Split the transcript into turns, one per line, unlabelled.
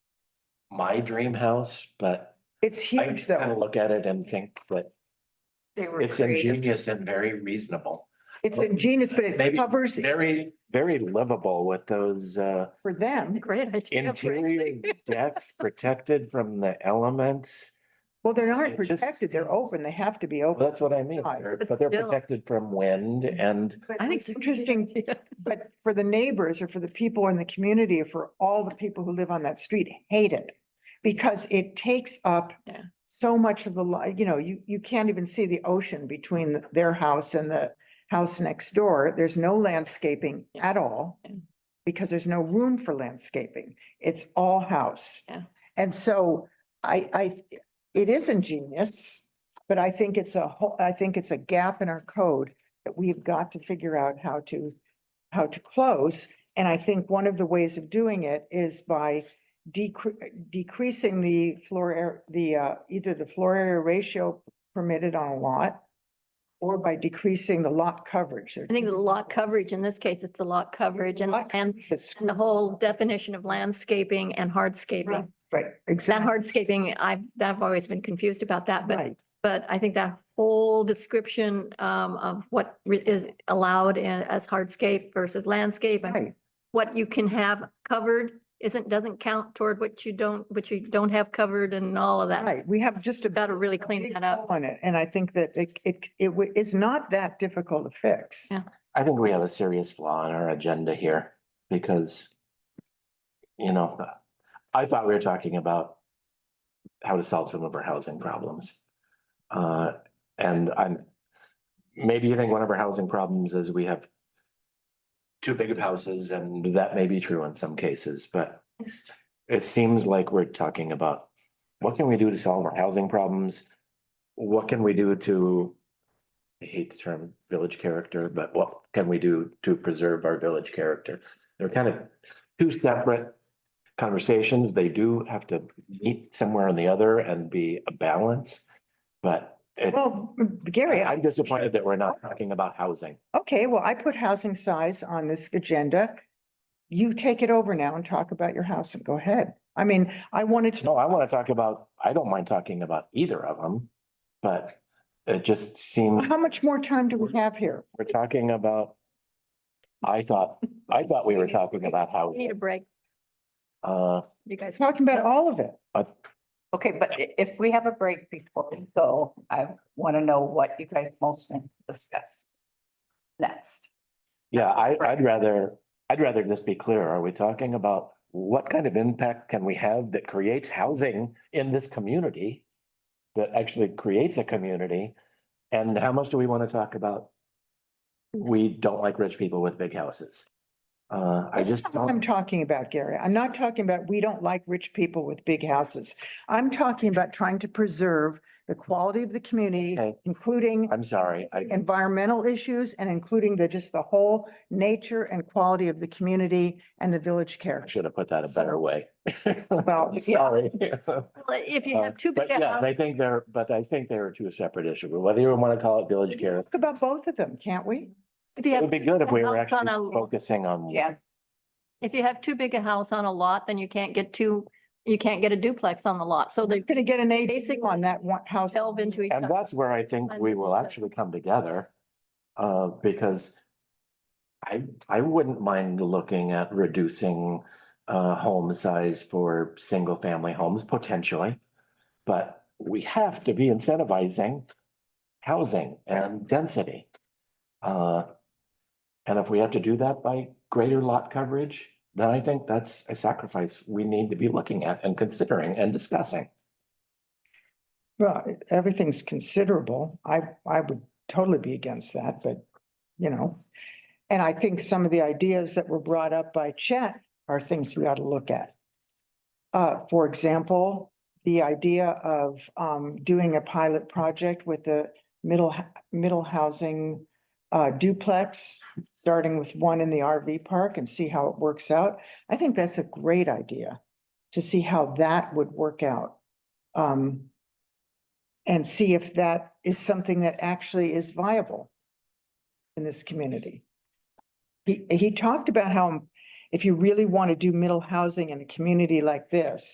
my dream house, but
It's
I
huge
kind of
though.
look at it and think that
They were
it's
creative.
ingenious and very reasonable.
It's ingenious, but it
Maybe
covers
very, very livable with those uh
for them.
Great idea.
interior decks protected from the elements.
Well, they aren't
It just
protected. They're
seems-
open. They have to be
Well,
open.
That's what I mean,
Right.
They're-
But
but they're
still.
protected from wind and
But
I think
it's
it's
interesting,
interesting.
but for the neighbors or for the people in the community, or for all the people who live on that street, hate it. Because it takes up
Yeah.
so much of the, li- you know, you, you can't even see the ocean between their house and the house next door. There's no landscaping
Yeah.
at all.
Yeah.
Because there's no room for landscaping. It's all house.
Yeah.
And so I, I, it is ingenious, but I think it's a whole, I think it's a gap in our code that we've got to figure out how to, how to close. And I think one of the ways of doing it is by decre- decreasing the floor air, the, uh, either the floor area ratio permitted on a lot or by decreasing the lot coverage.
I think the lot coverage, in this case, it's the lot coverage and, and and the whole definition of landscaping and hardscaping.
Right,
That
exactly.
hardscaping, I've, I've always been confused about that, but
Right.
But I think that whole description um of what re- is allowed a- as hardscape versus landscape and
Right,
what you can have covered isn't, doesn't count toward what you don't, what you don't have covered and all of that.
right. We have just about.
Got to really clean
big
that up.
hole in it, and I think that it, it, it wi- it's not that difficult to fix.
Yeah.
I think we have a serious flaw in our agenda here because you know, I thought we were talking about how to solve some of our housing problems. Uh, and I'm, maybe you think one of our housing problems is we have too big of houses and that may be true in some cases, but it seems like we're talking about what can we do to solve our housing problems? What can we do to, I hate the term village character, but what can we do to preserve our village character? They're kind of two separate conversations. They do have to meet somewhere on the other and be a balance. But it,
Well, Gary, I-
I'm disappointed that we're not talking about housing.
okay, well, I put housing size on this agenda. You take it over now and talk about your house and go ahead. I mean, I wanted to,
No, I want to talk about, I don't mind talking about either of them, but it just seems
how much more time do we have here?
we're talking about. I thought, I thought we were talking about
We Need a
housing.
break,
Uh,
you guys.
Talking about all of it.
but
Okay, but i- if we have a break before we go, I want to know what you guys most want to discuss next.
Yeah, I, I'd rather, I'd rather just be clear. Are we talking about what kind of impact can we have that creates housing in this community? That actually creates a community? And how much do we want to talk about? We don't like rich people with big houses. Uh, I
That's
just
not what
don't,
I'm talking about, Gary. I'm not talking about, we don't like rich people with big houses. I'm talking about trying to preserve the quality of the community,
Okay.
including
I'm sorry. I,
environmental issues and including the, just the whole nature and quality of the community and the village
I
character.
should have put that a better way.
Well, yeah.
Sorry.
Well, If you
Uh,
have too
But
big a
yeah,
house,
I think they're, but I think they are two separate issues, whether you want to call it village care.
Talk about both of them, can't we?
if you
It would
have,
be good if we were
House on
actually
a-
focusing on.
Yeah,
if you have too big a house on a lot, then you can't get two, you can't get a duplex on the lot. So they
Going to get an ADU
Basically,
on that one house.
delve into each
And
other.
that's where I think we will actually come together. Uh, because I, I wouldn't mind looking at reducing, uh, home size for single family homes potentially. But we have to be incentivizing housing and density. Uh, and if we have to do that by greater lot coverage, then I think that's a sacrifice we need to be looking at and considering and discussing.
Well, everything's considerable. I, I would totally be against that, but, you know. And I think some of the ideas that were brought up by Chet are things we ought to look at. Uh, for example, the idea of, um, doing a pilot project with the middle, h- middle housing uh, duplex, starting with one in the RV park and see how it works out. I think that's a great idea to see how that would work out. Um, and see if that is something that actually is viable in this community. He, he talked about how if you really want to do middle housing in a community like this,